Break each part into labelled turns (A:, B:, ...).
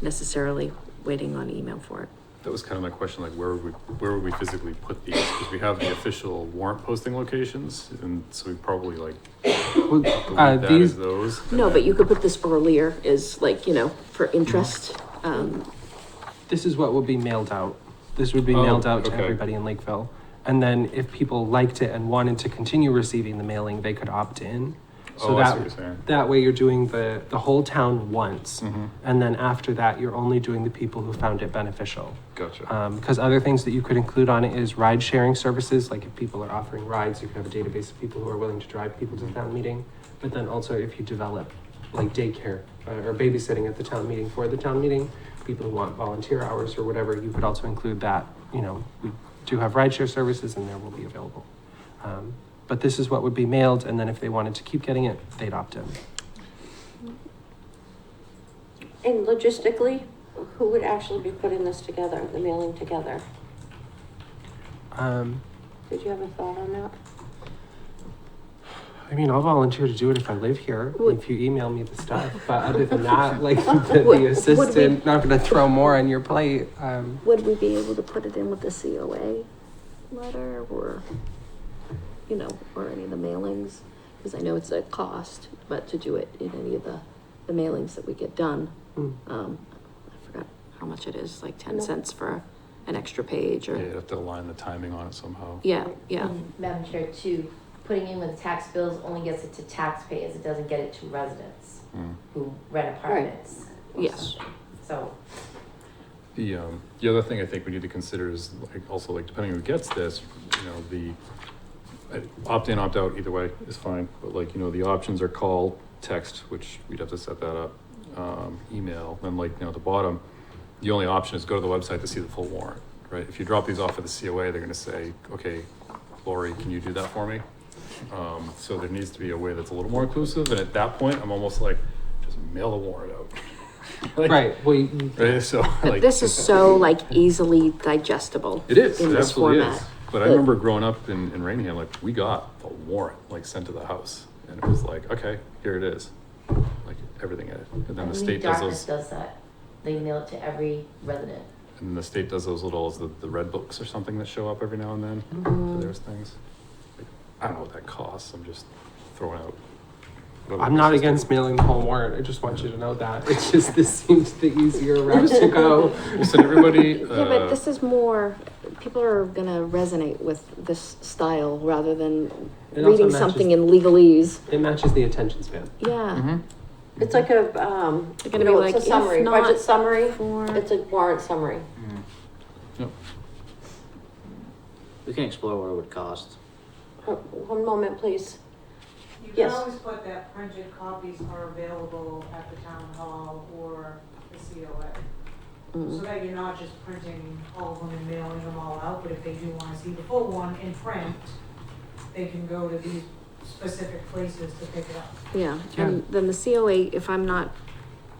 A: necessarily waiting on email for it.
B: That was kind of my question, like where would, we- where would we physically put these? Because we have the official warrant posting locations and so we probably like delete
C: Uh,
B: that
C: these,
B: as those. and
A: No,
B: then-
A: but you could put this earlier is like, you know, for interest. Um,
C: this is what will be mailed out. This would be
B: Oh,
C: mailed out
B: okay.
C: to everybody in Lakeville. And then if people liked it and wanted to continue receiving the mailing, they could opt in. So
B: Oh, I see
C: that
B: what you're saying.
C: that way you're doing the the whole town once,
B: Mhm.
C: and then after that you're only doing the people who found it beneficial.
B: Gotcha.
C: Because Um, other things that you could include on it is ride sharing services, like if people are offering rides, you could have a database of people who are willing to drive people to the town meeting. But then also if you develop like daycare uh, or babysitting at the town meeting for the town meeting, people who want volunteer hours or whatever, you could also include that. You know, we do have rideshare services and there will be available. Um, but this is what would be mailed, and then if they wanted to keep getting it, they'd opt in.
D: And logistically, who would actually be putting this together, the mailing together?
C: Um,
D: Did you have a thought on that?
C: I mean, I'll volunteer to do it if I live here,
A: Would-
C: if you email me the stuff, but other than that, like, the,
A: Would- would we-
C: the assistant, not gonna throw more on your plate, um,
E: Would we be able to put it in with the COA letter or, you know, or any of the mailings? Because I know it's a cost, but to do it in any of the, the mailings that we get done,
C: mm,
A: um, I forgot how much it is, like ten
D: No.
A: cents for an extra page
B: Yeah, you'd
A: or,
B: have to align the timing on it somehow.
A: yeah, yeah.
F: And Madam Chair, too, putting in with tax bills only gets it to taxpayers, it doesn't get it to residents
B: Mm.
F: who rent apartments. or
A: Yes.
F: something. So,
B: The, um, the other thing I think we need to consider is like, also like depending who gets this, you know, the uh, opt-in, opt-out, either way is fine. But like, you know, the options are call, text, which we'd have to set that up, um, email, then like, you know, at the bottom, the only option is go to the website to see the full warrant, right? If you drop these off at the COA, they're gonna say, okay, Lori, can you do that for me? Um, so there needs to be a way that's a little more inclusive, and at that point, I'm almost like, just mail the warrant out. Like,
C: right, well, you-
B: Right, so
A: But
B: like.
A: this is so like easily digestible.
B: It is.
A: in
B: It
A: this
B: absolutely
A: format.
B: is. But I
A: But-
B: remember growing up in, in Rainham, like we got the warrant like sent to the house, and it was like, okay, here it is, like everything in it. And then
F: I
B: the
F: believe
B: state does
F: Dartmouth
B: those,
F: does that, they mail it to every resident.
B: and the state does those little the, the red books or something that show up every now and then.
E: Mm-hmm.
B: So there's things. Like, I don't know what that costs. I'm just throwing out. whatever
C: I'm not
B: the system-
C: against mailing the whole warrant, I just want you to know that, it's just, this seems the easier route to go.
B: We'll send everybody.
E: Yeah, but
B: uh,
E: this is more, people are gonna resonate with this style rather than
C: It also
E: reading
C: matches-
E: something in legalese.
C: It matches the attention span.
A: Mm-hmm.
E: Yeah.
B: mhm.
D: It's like a, um,
A: They're
D: you
A: gonna be
D: know, it's
A: like,
D: a summary,
A: if not
D: budget summary,
A: for-
D: it's a warrant summary.
B: Yep.
G: We can explore what it would cost.
D: Uh, One moment, please.
H: You can
D: Yes.
H: always put that printed copies are available at the town hall or the COA.
A: Mm-hmm. mm,
H: So that you're not just printing all of them and mailing them all out, but if they do wanna see the full one in print, they can go to these specific places to pick it up.
A: Yeah,
C: Yeah.
A: and then the COA, if I'm not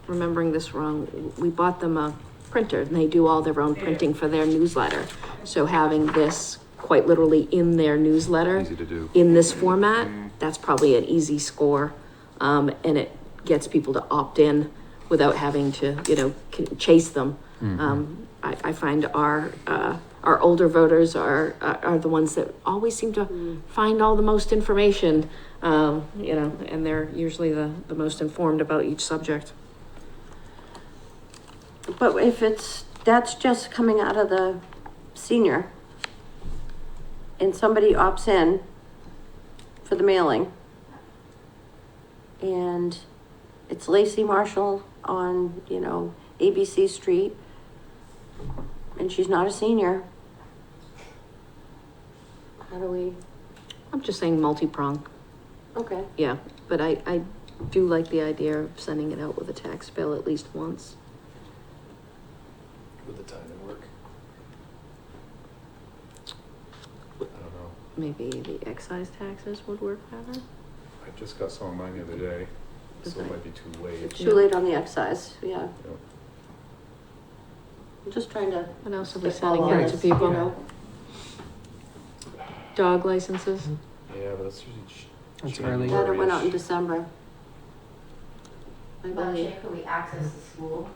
A: remembering this wrong, we bought them a printer and they do all their own
H: Yeah.
A: printing for their newsletter. So having this quite literally in their newsletter,
B: Easy to do.
A: in this format, that's probably an easy score. Um, and it gets people to opt in without having to, you know, c- chase them.
B: Mm-hmm.
A: Um, I, I find our, uh, our older voters are, are are the ones that always seem to find all the most information. Um, you know, and they're usually the, the most informed about each subject.
D: But if it's, that's just coming out of the senior, and somebody opts in for the mailing, and it's Lacey Marshall on, you know, ABC Street, and she's not a senior. How do we,
A: I'm just saying multi-pronged.
D: okay,
A: Yeah, but I, I do like the idea of sending it out with a tax bill at least once.
G: With the time and work.
B: I don't know.
A: Maybe the excise taxes would work better?
B: I just got some of mine the other day, so it might be too late.
D: too late on the excise, yeah,
B: Yeah.
D: I'm just trying to.
A: What else are we
D: spitball
A: sending
D: on
A: out to
D: this, you
A: people?
D: know.
A: Dog licenses?
B: Yeah, but that's usually. ch-
C: That's
B: January-ish.
C: early.
D: That went out in December. I
F: Madam
D: believe.
F: Chair, could we access the school